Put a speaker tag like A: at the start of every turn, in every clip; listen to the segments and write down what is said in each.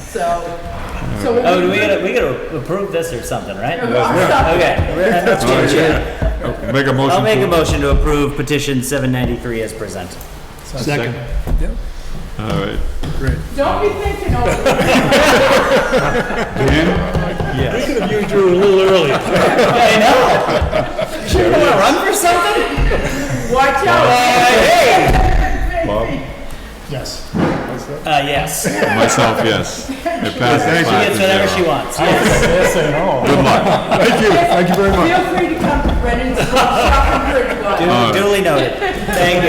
A: So, so. what
B: Oh, do we gotta, we gotta approve this or something, right? Okay. let's
C: All right,
B: change it.
C: yeah. Make a motion.
B: I'll make
C: to-
B: a motion to approve petition seven ninety-three as presented.
D: Second.
C: All right.
A: Don't be thinking over.
C: Dan?
B: I know. Sure, you wanna run for something?
A: Watch out.
C: Bob?
D: Yes.
B: Uh, yes. She
C: Myself, yes. It passes five to
B: gets whatever she
C: zero.
B: wants.
D: Yes
B: Yes.
D: and all.
C: Good luck.
D: Thank you, thank you very much.
A: Feel free to come to Brennan's shop and
C: All right.
B: Duly noted. Thank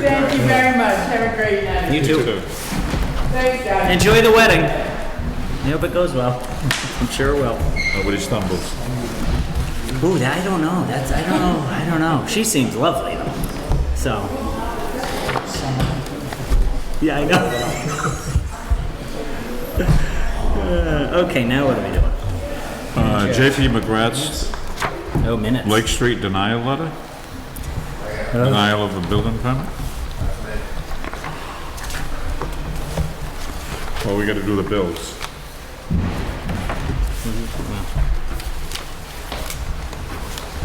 A: Thank you very much. Have a great
B: you. You
A: night.
B: too.
A: Thanks, guys.
B: Enjoy the wedding. I hope it goes well. I'm sure it will.
C: Nobody Uh, stumbles.
B: Ooh, I don't know. That's I don't know. I don't know. She seems lovely though. So. Yeah, I know. Uh, okay, now what are we doing?
C: Uh, JP McGrath's
B: No Oh, minutes.
C: Lake Street denial letter? Denial of a building permit? Well, we gotta do the bills.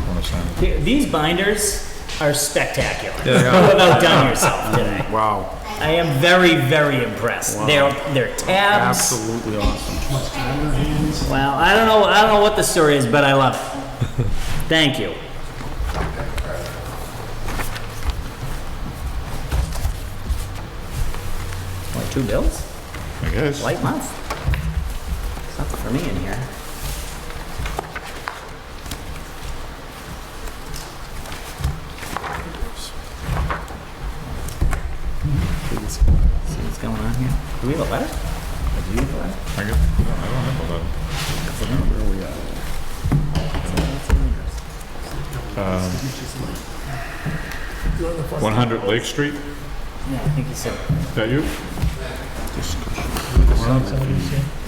C: Wanna sign it?
B: Th- These binders are spectacular. You've about done yourself today.
E: Wow,
B: I am very, very impressed. They're they're tabs.
E: absolutely awesome.
B: Well, I don't know. I don't know what the story is, but I love it. Thank you. What, two bills?
C: I guess.
B: Light month. There's nothing for me in here. See what's- see what's going on here? Do we have a letter? Do you have a letter?
C: I guess, I don't have a letter. Um, 100 Lake Street, is
B: Yeah, I think you said.
C: that you?
D: Oh,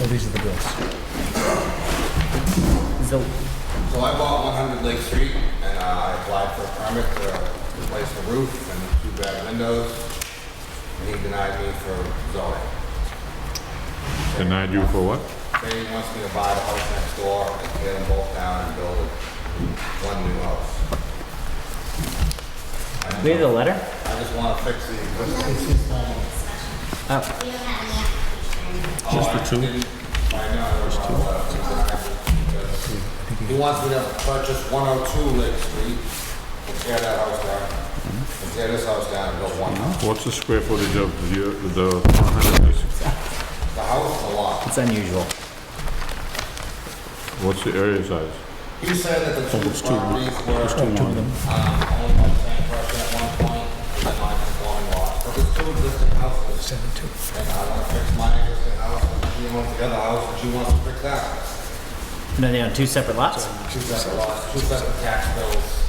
D: these are the bills.
B: So,
F: So I bought 100 Lake Street, and uh, I applied for a permit to replace the roof and two bad windows, and he denied me for zoning.
C: Denied you for what?
F: They wants me to buy the house next door and tear them both down and build one new house.
B: we have the letter?
F: I just want to fix the existing.
B: Oh,
F: Just for two? Oh, I know, I was on the left, because he wants me to purchase 102 Lake Street and tear that house down, and tear this house down and build one house.
C: What's the square footage of the, the 100 Lake?
F: The house is a lot.
B: it's unusual.
C: What's the area size?
F: He said that the Oh, two properties were, um, owned by the same person at one point, and then mine is going lot. But there's two existing houses. And I wanna fix my existing house, and she wants the other house, and she wants to fix that. house.
B: And then they on two separate lots?
F: Two separate lots, two separate tax bills,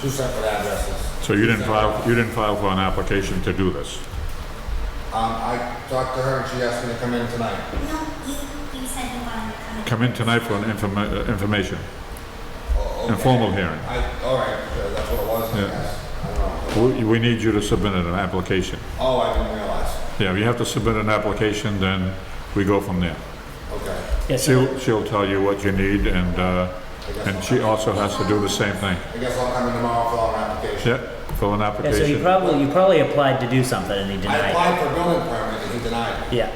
F: two separate addresses.
C: So you didn't file, you didn't file for an application to do this?
F: Um, I talked to her, and she asked me to come in tonight.
G: No, you, you said you wanted to come in.
C: Come in tonight for an informa- uh, information,
F: Oh, okay.
C: informal hearing.
F: I, all right, uh, that's what it was, I
C: Yeah.
F: guess. I don't know.
C: We, we need you to submit an application.
F: Oh, I didn't realize.
C: Yeah, if you have to submit an application, then we go from there.
F: Okay.
B: Yes, sir.
C: She'll, she'll tell you what you need and, uh, and she also has to do the same thing.
F: I guess I'll come in tomorrow for an application.
C: Yeah, fill an
B: Yeah, so you
C: application.
B: probably, you probably applied to do something and he
F: I
B: denied
F: applied for a building permit and he denied it.
B: it. Yeah.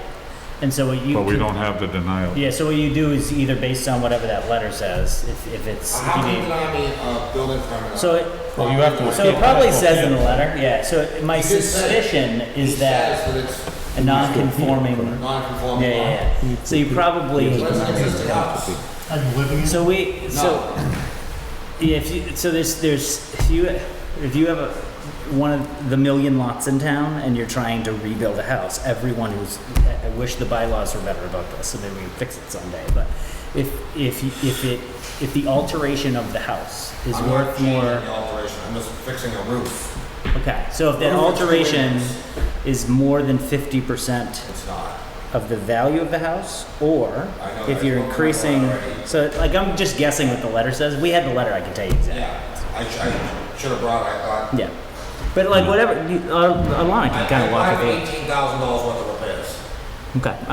B: And so what you.
C: But we
B: could-
C: don't have the denial.
B: Yeah, so what you do is either based on whatever that letter says, if, if it's, if
F: Uh, How
B: you
F: can you
B: need.
F: deny me a building permit?
B: So it,
F: Well, you have to
B: so it probably says in the letter, yeah, so it- my
F: He did say-
B: suspicion
F: He
B: is that
F: says it's
B: a non-conforming. Yeah, yeah,
F: non-conforming.
B: yeah. So you probably.
F: But it's an existing house.
D: Are you living in?
B: So we, so, yeah, if you, so there's, there's, if you, if you have a, one of the million lots in town and you're trying to rebuild a house, everyone who's, I I wish the bylaws were better about this, so maybe we can fix it someday, but if, if, you- if it, if the alteration of the house is
F: I'm not
B: worth
F: changing
B: more,
F: the alteration, I'm just fixing a roof.
B: okay, so if that
F: Roof is
B: alteration
F: raised.
B: is more than fifty percent
F: It's not.
B: of the value of the house, or
F: I know
B: if
F: there's
B: you're
F: one more
B: increasing,
F: already.
B: so like, I'm just guessing what the letter says, we had the letter, I can tell you exactly.
F: Yeah, I, sh- I should have brought, it, I thought.
B: Yeah, but like whatever, you, uh, online
F: I
B: can kind of
F: I
B: walk
F: have
B: it
F: eighteen thousand dollars worth of repairs.
B: through. Okay.